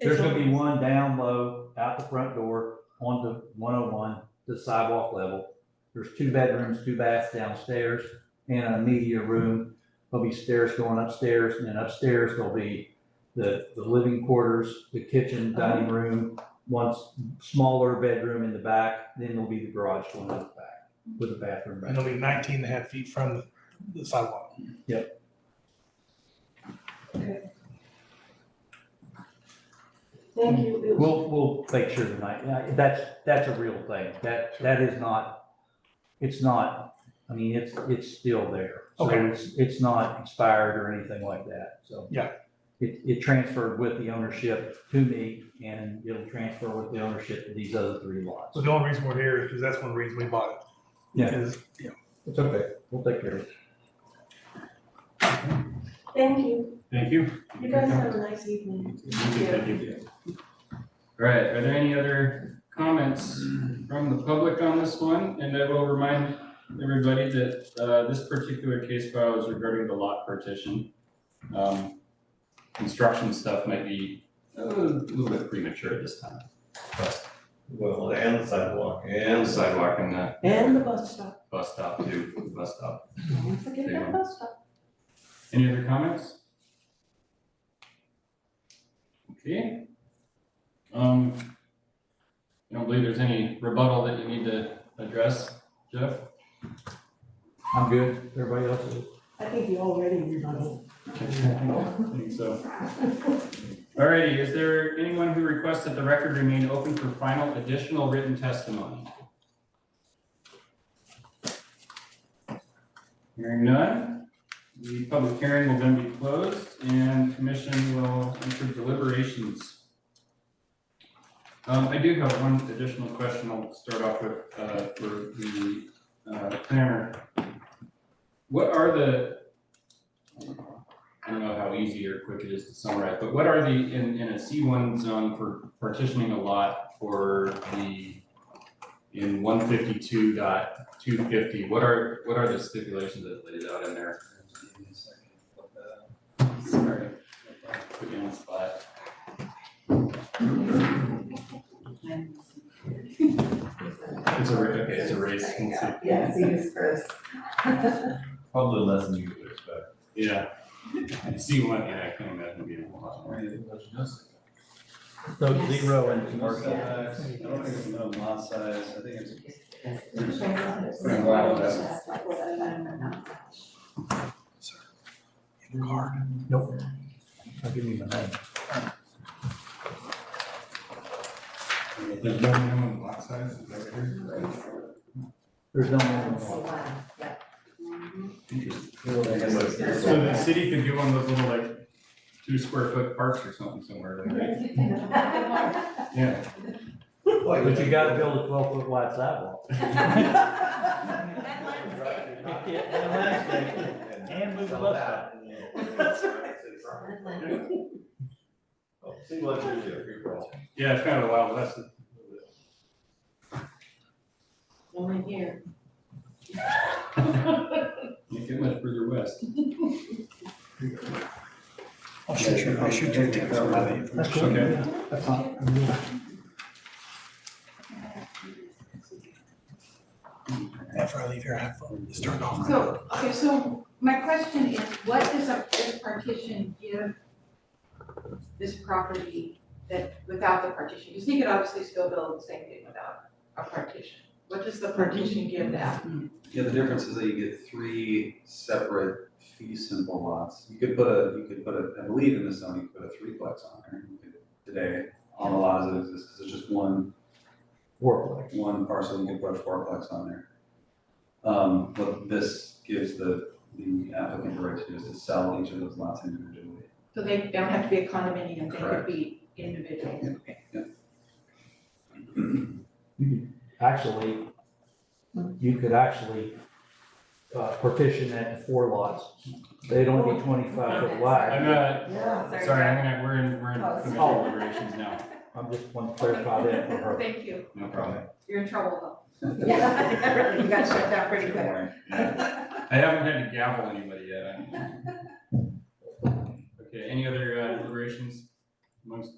There's gonna be one down low out the front door onto one oh one, the sidewalk level. There's two bedrooms, two baths downstairs and a media room. There'll be stairs going upstairs and then upstairs there'll be the, the living quarters, the kitchen, dining room, one s- smaller bedroom in the back, then there'll be the garage going up the back with a bathroom And back. it'll be 19 and a half feet from the- the sidewalk. Thank you. It was- We'll, we'll make sure tonight, Yeah, that's, that's a real thing, that, that is not, it's not, I mean, it's, it's still there. So Okay. it's, it's not expired or anything like that, so. Yeah. It, it transferred with the ownership to me, and it'll transfer with the ownership to these other three lots. So the only reason we're here is because that's one reason we bought it. Yeah. Is- It's okay, we'll take care of it. Thank you. Thank you. You guys have a nice evening. Thank you. All right, are there any other comments from the public on this one? And I will remind everybody that, uh, this particular case file is regarding the lot partition. Um, Construction stuff might be a little bit premature at this time. Well, and the sidewalk. And the sidewalk and the And the bus stop. bus stop too, the bus stop. Don't forget about the bus stop. Any other comments? Okay. Um, I don't believe there's any rebuttal that you need to address, Jeff? I'm good, everybody else is? I think you already rebutted. Think so. Alrighty, is there anyone who requests that the record remain open for final additional written testimony? Hearing none, the public hearing will then be closed and commission will enter deliberations. Um, I do have one additional question I'll start off with, uh, for the, uh, planner. What are the, I don't know how easy or quick it is to summarize, but what are the, in, in a C one zone for partitioning a lot for the, in one fifty-two dot two fifty, what are, what are the stipulations that laid out in there? Sorry, put you on the spot. It's a, ra- okay, it's a race, we'll see. Yeah, see this first. Probably less than you would expect. yeah. C one, yeah, I can imagine being a lot more. So Yes. zero and Lot commercial. size, I don't think it's minimum lot size, I think it's. Pretty wild, that's- In the car. Nope. I'll give you my name. There's no minimum lot size, is that what you're- There's no more. So the city could do one of those little like two square foot parks or something somewhere, right? Yeah. But you gotta build a twelve foot wide sidewalk. And move the bus stop. Oh, See what you do. Yeah, it's kind of a wild west. Only here. You get much further west. I'll shoot you, I'll shoot you a text. That's cool. Okay. That's not- After I leave here, I have fun. It's turned off. So, okay, so my question is, what does a, this partition give this property that, without the partition? Because he could obviously still build the same thing without a partition. What does the partition give that? Yeah, the difference is that you get three separate fee simple lots. You could put a, you could put a, I believe in this zone, you could put a threeplex on there you could- today on the lots that exist, because it's just one, Work. one parcel, you could put a fourplex on there. Um, but this gives the, the applicant the right to do is to sell each of those lots individually. So they don't have to be a condominium, they could be individual. Actually, you could actually uh, partition that in four lots. They'd only be twenty-five foot wide. I'm uh Yeah, sorry. sorry, I'm gonna, we're in, we're in Oh, commission sorry. deliberations now, I'm just want to clarify that for her. Thank you, no problem. you're in trouble Yeah. though. You got shut down pretty quick. Yeah. I haven't had to gavel anybody yet. I'm- Okay, any other uh, deliberations amongst